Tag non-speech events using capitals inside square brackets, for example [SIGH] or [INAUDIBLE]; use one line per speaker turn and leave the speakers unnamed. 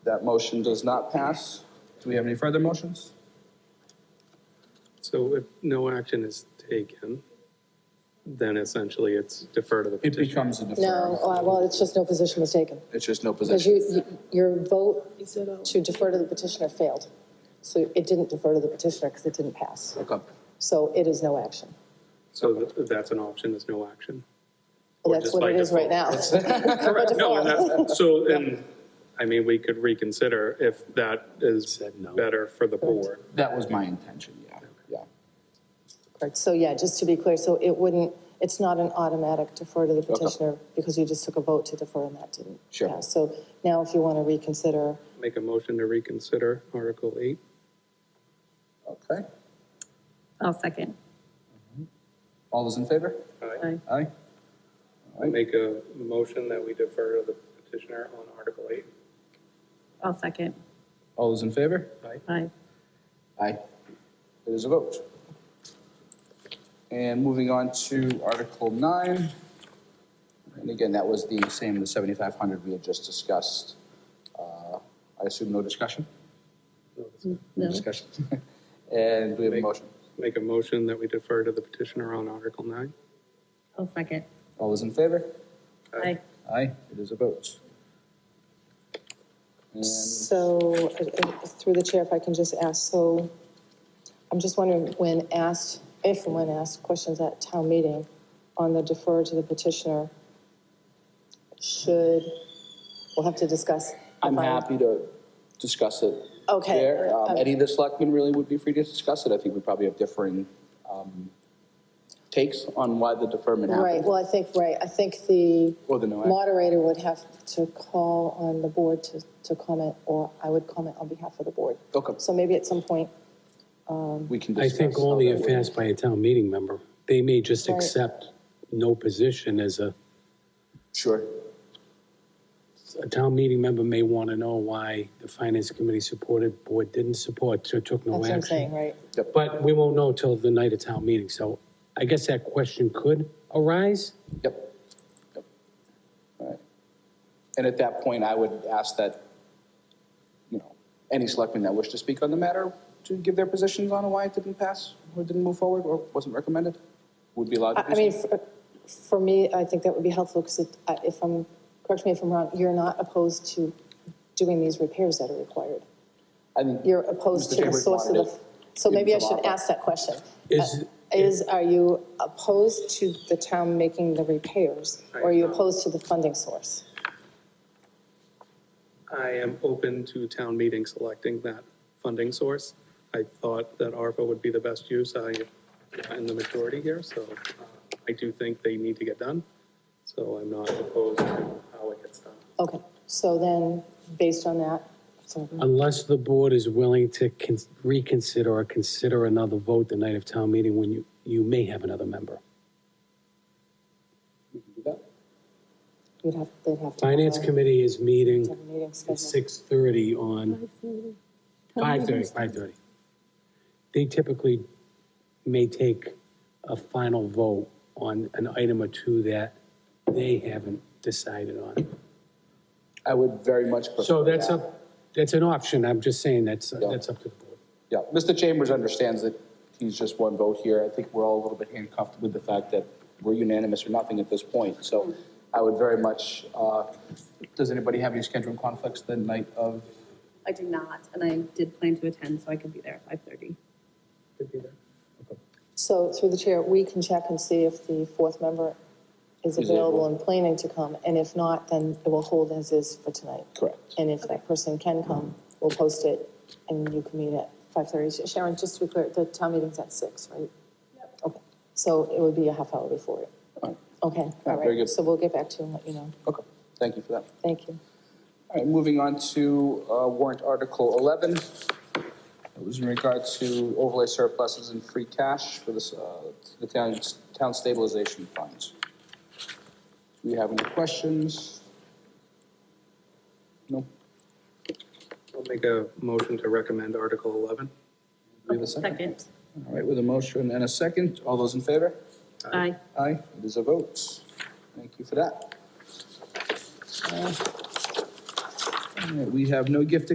That motion does not pass. Do we have any further motions?
So if no action is taken, then essentially it's defer to the
It
petition.
becomes a
No,
deferral.
uh, well, it's just no position was taken.
It's just no
Because
position.
you, you- your vote to defer to the petitioner failed. So it didn't defer to the petitioner because it didn't pass.
Okay.
So it is no action.
So th- that's an option, is no action. Or
That's
just
what
by
it is right now. [LAUGHS]
default. [LAUGHS] No,
By default.
and that, so, and, I mean, we could reconsider if that is better for the board.
That was my intention, yeah, yeah.
Correct. So yeah, just to be clear, so it wouldn't, it's not an automatic defer to the petitioner because you just took a vote to defer and that didn't
Sure.
pass. So now if you want to reconsider,
Make a motion to reconsider Article 8.
Okay.
I'll second.
All those in favor?
I
Aye.
Aye.
Make a motion that we defer to the petitioner on Article 8.
I'll second.
All those in favor?
Aye.
Aye. It is a vote. And moving on to Article 9. And again, that was the same, the 7,500 we had just discussed. Uh, I assume no discussion?
No.
Discussion. [LAUGHS] And we have a
Make-
motion.
Make a motion that we defer to the petitioner on Article 9.
I'll second.
All those in favor?
Aye.
Aye, it is a vote. And
so uh, uh, through the chair, if I can just ask, so I'm just wondering when asked, if and when asked questions at town meeting on the defer to the petitioner, should, we'll have to discuss.
I'm
if I-
happy to discuss it.
Okay.
there. Um,
Um,
Any of the selectmen really would be free to discuss it. I think we probably have differing um, takes on why the deferment
Right,
happened.
well, I think, right, I think the
Or the no act.
moderator would have to call on the board to, to comment, or I would comment on behalf of the board.
Okay.
So maybe at some point,
We can
I
discuss.
think
how
only
that
if
would-
asked by a town meeting member. They may just
Right.
accept no position as a,
Sure.
a town meeting member may want to know why the finance committee supported, board didn't support, so took no
that's what I'm saying,
action.
right?
Yep.
But we won't know till the night of town meeting, so I guess that question could arise.
Yep. Yep. All right. And at that point, I would ask that, you know, any selectmen that wish to speak on the matter to give their positions on why it didn't pass or didn't move forward or wasn't recommended would be allowed to
I,
do
I
so.
mean, for, for me, I think that would be helpful, because it, I- if I'm, correct me if I'm wrong, you're not opposed to doing these repairs that are required.
I think
You're opposed
Mr.
to the
Chambers
source of
wanted
the,
it
so
in
maybe I
some
should
opera.
ask that question.
Is-
Uh, Is, are you opposed to the town making the repairs, or are you opposed to the funding source?
I am open to town meeting selecting that funding source. I thought that ARPA would be the best use. I am in the majority here, so uh, I do think they need to get done. So I'm not opposed to how it gets done.
Okay, so then, based on that, so,
Unless the board is willing to con- reconsider or consider another vote the night of town meeting when you, you may have another member.
We can do that.
you'd have, they'd have to.
Finance committee is meeting
Have a meeting
at
scheduled.
six thirty on, five thirty, five thirty. They typically may take a final vote on an item or two that they haven't decided on.
I would very much prefer.
So that's
that.
up, that's an option, I'm just saying, that's, that's up to the board.
Yeah, Mr. Chambers understands that he's just one vote here. I think we're all a little bit handcuffed with the fact that we're unanimous or nothing at this point. So I would very much, uh, does anybody have any scheduling conflicts the night of?
I did not, and I did plan to attend, so I could be there at 5:30.
So, through the chair, we can check and see if the fourth member is
Is able.
available and planning to come, and if not, then it will hold as is for tonight.
Correct.
And if that person can come, we'll post it, and you can meet at five thirty. Sharon, just to be clear, the town meeting's at six, right? Okay, so it would be a half hour before it.
All right.
Okay,
Yeah,
all
very
right,
good.
so we'll get back to you and let you know.
Okay, thank you for that.
Thank you.
All right, moving on to uh, warrant Article 11. It was in regard to overlay surpluses and free cash for this, uh, the town town stabilization funds. Do we have any questions? No?
I'll make a motion to recommend Article 11.
We have a
Second.
All right, with a motion and a second, all those in favor?
Aye.
Aye, it is a vote. Thank you for that. Uh, All right, We have no gift